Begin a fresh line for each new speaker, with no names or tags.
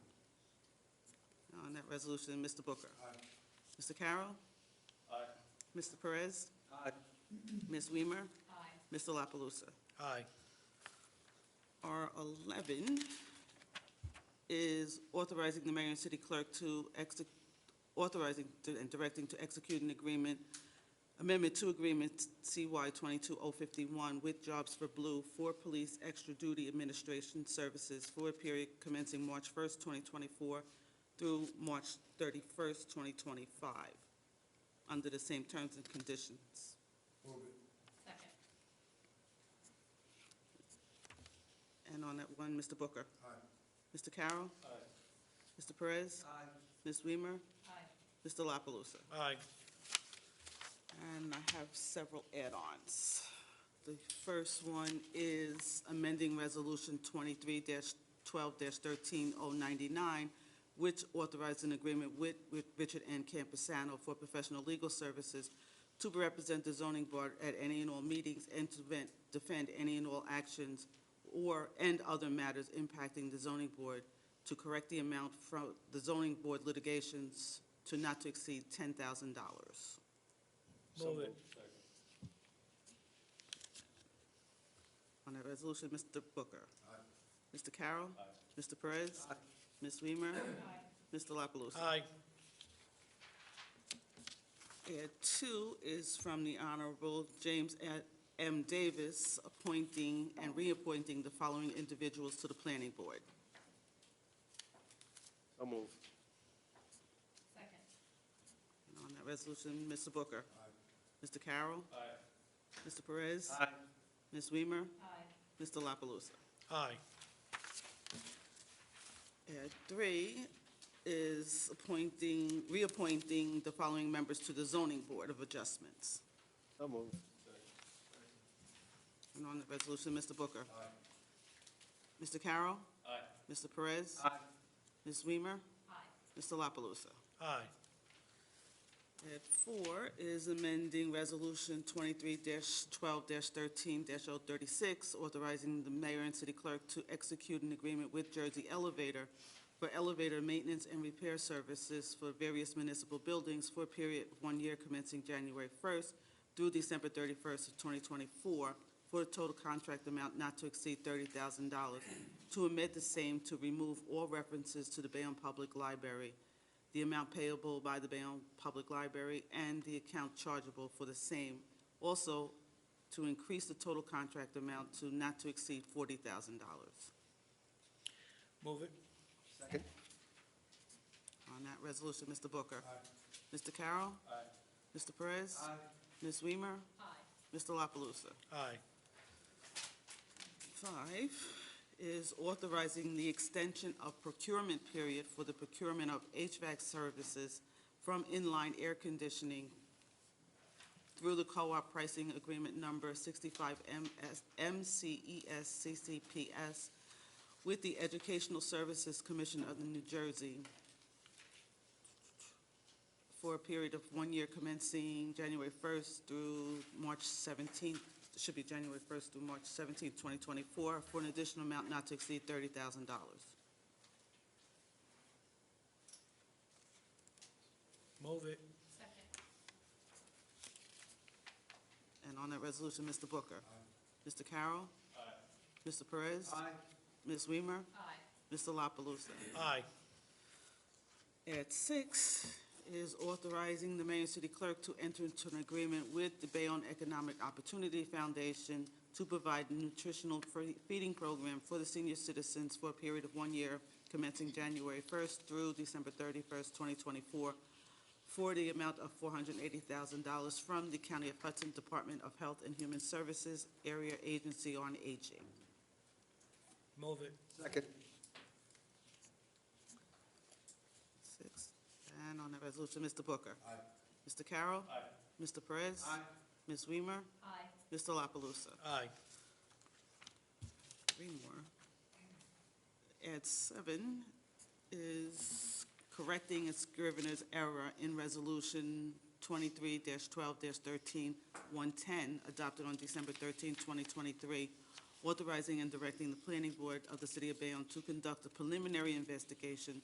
that resolution. Mr. Booker? Mr. Carroll?
Aye.
Mr. Perez?
Aye.
Ms. Weimer?
Aye.
Mr. La Palusa?
Aye.
R eleven is authorizing the mayor and city clerk to exec, authorizing to- and directing to execute an agreement, amendment to agreement CY twenty-two oh fifty-one with Jobs for Blue for police extra duty administration services for a period commencing March first, twenty twenty-four through March thirty-first, twenty twenty-five, under the same terms and conditions.
Second.
And on that one, Mr. Booker. Aye. Mr. Carroll.
Aye.
Mr. Perez.
Aye.
Ms. Weimer.
Aye.
Mr. La Palusa.
Aye.
And I have several add-ons. The first one is amending Resolution twenty-three twelve thirteen oh ninety-nine, which authorized an agreement with, with Richard N. Campusano for professional legal services to represent the zoning board at any and all meetings and to vent- defend any and all actions or, and other matters impacting the zoning board to correct the amount from the zoning board litigations to not to exceed ten thousand dollars.
Move it.
On that resolution, Mr. Booker. Mr. Carroll. Mr. Perez. Ms. Weimer. Mr. La Palusa.
Aye.
Add two is from the Honorable James A- M. Davis, appointing and reappointing the following individuals to the planning board.
So move.
Second.
And on that resolution, Mr. Booker. Mr. Carroll.
Aye.
Mr. Perez.
Aye.
Ms. Weimer.
Aye.
Mr. La Palusa.
Aye.
Add three is appointing, reappointing the following members to the zoning board of adjustments.
So move.
And on the resolution, Mr. Booker. Mr. Carroll.
Aye.
Mr. Perez.
Aye.
Ms. Weimer.
Aye.
Mr. La Palusa.
Aye.
Tab four is amending Resolution twenty-three twelve thirteen 36 authorizing the mayor and city clerk to execute an agreement with Jersey Elevator for elevator maintenance and repair services for various municipal buildings for a period of one year commencing January first through December thirty-first of twenty twenty-four, for a total contract amount not to exceed thirty thousand dollars, to omit the same to remove all references to the Bayonne Public Library, the amount payable by the Bayonne Public Library, and the account chargeable for the same. Also, to increase the total contract amount to not to exceed forty thousand dollars.
Move it.
Second.
On that resolution, Mr. Booker. Mr. Carroll.
Aye.
Mr. Perez. Ms. Weimer.
Aye.
Mr. La Palusa.
Aye.
Five is authorizing the extension of procurement period for the procurement of HVAC services from inline air conditioning through the co-op pricing agreement number 65 MS E MCES CCPS with the Educational Services Commission of the New Jersey for a period of one year commencing January 1st through March 17th, should be January 1st through March 17th, 2024, for an additional amount not to exceed $30,000.
Move it.
Second.
And on that resolution, Mr. Booker. Mr. Carroll. Mr. Perez. Ms. Weimer.
Aye.
Mr. La Palusa.
Aye.
At six is authorizing the mayor and city clerk to enter into an agreement with the Bayonne Economic Opportunity Foundation to provide nutritional fe- feeding program for the senior citizens for a period of one year commencing January first through December thirty-first, twenty twenty-four, for the amount of four hundred and eighty thousand dollars from the County of Hudson Department of Health and Human Services Area Agency on Aging.
Move it.
Second.
Six. And on that resolution, Mr. Booker. Aye. Mr. Carroll. Aye. Mr. Perez. Aye. Ms. Weimer.
Aye.
Mr. La Palusa.
Aye.
Three more. At seven is correcting a scrivener's error in Resolution twenty-three twelve 13 110 adopted on December 13, twenty twenty-three, authorizing and directing the planning board of the city of Bayonne to conduct a preliminary investigation